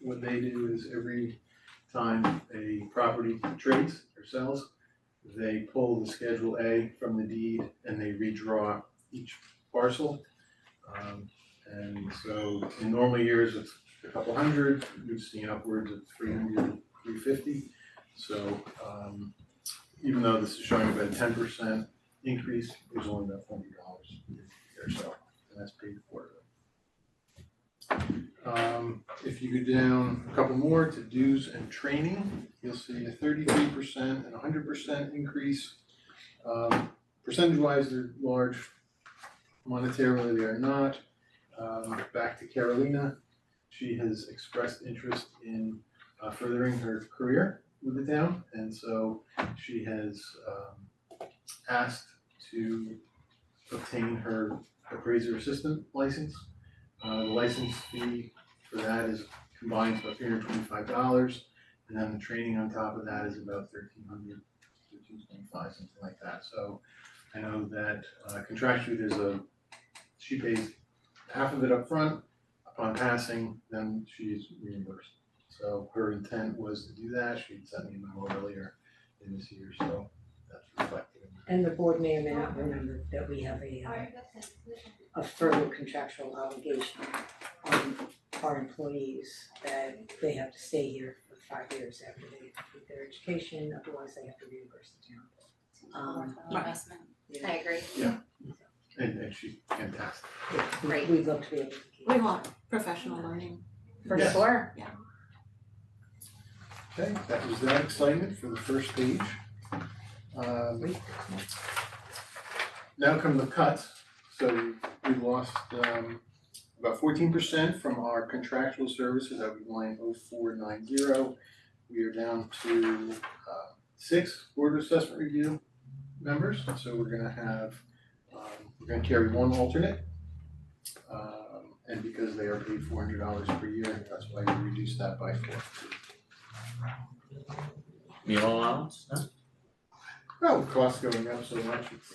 what they do is every time a property trades or sells, they pull the Schedule A from the deed and they redraw each parcel. Um, and so in normal years, it's a couple hundred, we've seen upwards of 300, 350. So um even though this is showing about a ten percent increase, it was only about forty dollars or so, and that's paid for. Um, if you go down a couple more to dues and training, you'll see a thirty-three percent and hundred percent increase. Um, percentage-wise, they're large, monetarily they are not. Um, back to Carolina, she has expressed interest in uh, furthering her career with the town, and so she has um asked to obtain her appraiser assistant license. Uh, the license fee for that is combined about three hundred twenty-five dollars, and then the training on top of that is about thirteen hundred, thirteen twenty-five, something like that, so I know that uh, contractually, there's a, she pays half of it up front. upon passing, then she's reimbursed. So her intent was to do that, she sent me a memo earlier in this year, so that's reflected. in And the board may or may not remember that we have a uh, a further contractual obligation on our employees that they have to stay here for five years after they complete their education, otherwise they have to reimburse the town. Um, investment. I agree. And and she's fantastic. we- Great. We'd love to be able to keep. We want professional learning. For Yes. sure. Yeah. Okay, that was that excitement for the first page. Um, Now come the cuts, so we lost um about fourteen percent from our contractual services, that would be line oh four nine zero. We are down to uh six board of assessment review members, so we're gonna have um we're gonna carry one alternate. Um and because they are paid four hundred dollars per year, that's why we reduced that by four. Meal allowance, no? Well, the costs Oh, going up so much, it's,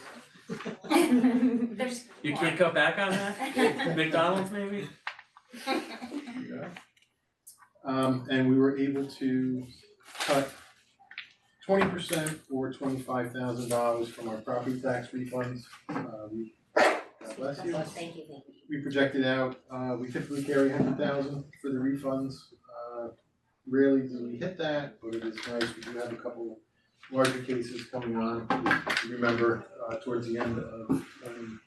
There's. You can't cut back on that? McDonald's maybe? you know. Um, and we were able to cut twenty percent or twenty-five thousand dollars from our property tax refunds. Uh, we, God bless you. Thank you, thank you. We projected out, uh, we typically carry hundred thousand for the refunds. Uh, Rarely do we hit that, but it is nice. We do have a couple larger cases coming on. Remember, uh, towards the end of, um,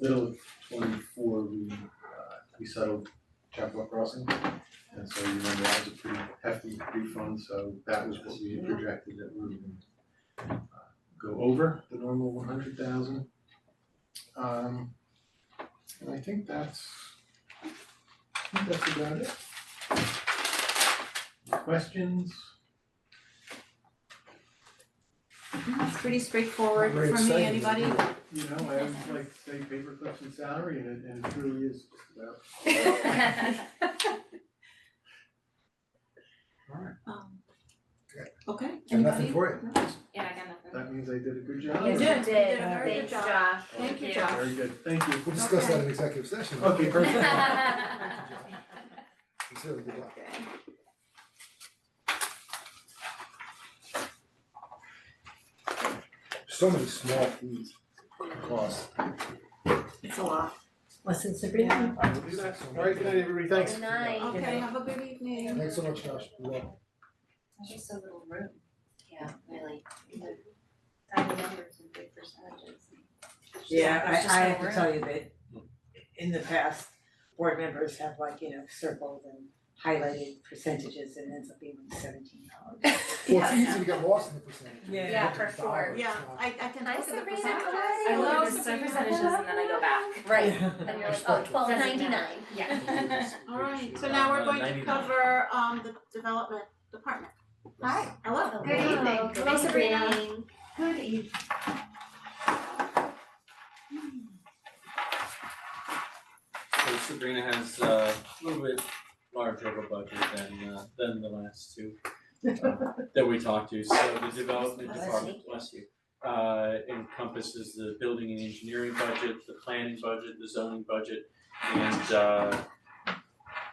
middle of twenty-four, we, uh, we settled Chapel Crossing. And so you remember that was a pretty hefty refund, so that was what we had projected that we were gonna uh, go over the normal one hundred thousand. Um, and I think that's, I think that's about it. Questions? It's pretty straightforward Very for me, exciting. anybody? You know, I always like to say paper clips and salary, and it, and it truly is just about, Alright. Um, Okay. Okay, Got nothing anybody? for it. Yeah, I got nothing. that means I did a good job. You or- did. did, a very good job. thanks, Josh. Thank you, Josh. Very good, thank you. We'll discuss that Okay. in executive session. Okay, perfect. Consider it good luck. Okay. So many small fees cost. It's a lot. Lessons to be learned. I will do that. All right, good night, everybody, thanks. Good night. Okay, have a good evening. Thanks so much, Josh. Good luck. Just so little room. Yeah, really. Tiny numbers and big percentages. Yeah, There's just I I no have to room. tell you that in the past, board members have like, you know, circled and highlighted percentages and ends up being like seventeen dollars. Well, it's easy to get lost in the percentage. Yeah. Yeah, for sure. Yeah, I I can Hi, look at the Sabrina. percentages. Hi. I love There's Sabrina. percentages and then I go back. Right. And you're like, oh, twelve ninety-nine. Yeah. Alright, so now we're going to 99. cover um the development department. Hi. Hello. Good evening. Hello, Sabrina. Good evening. So Sabrina has uh, a little bit larger of a budget than uh than the last two uh, that we talked to, so the development Bless department, bless you. Uh encompasses the building and engineering budget, the planning budget, the zoning budget, and uh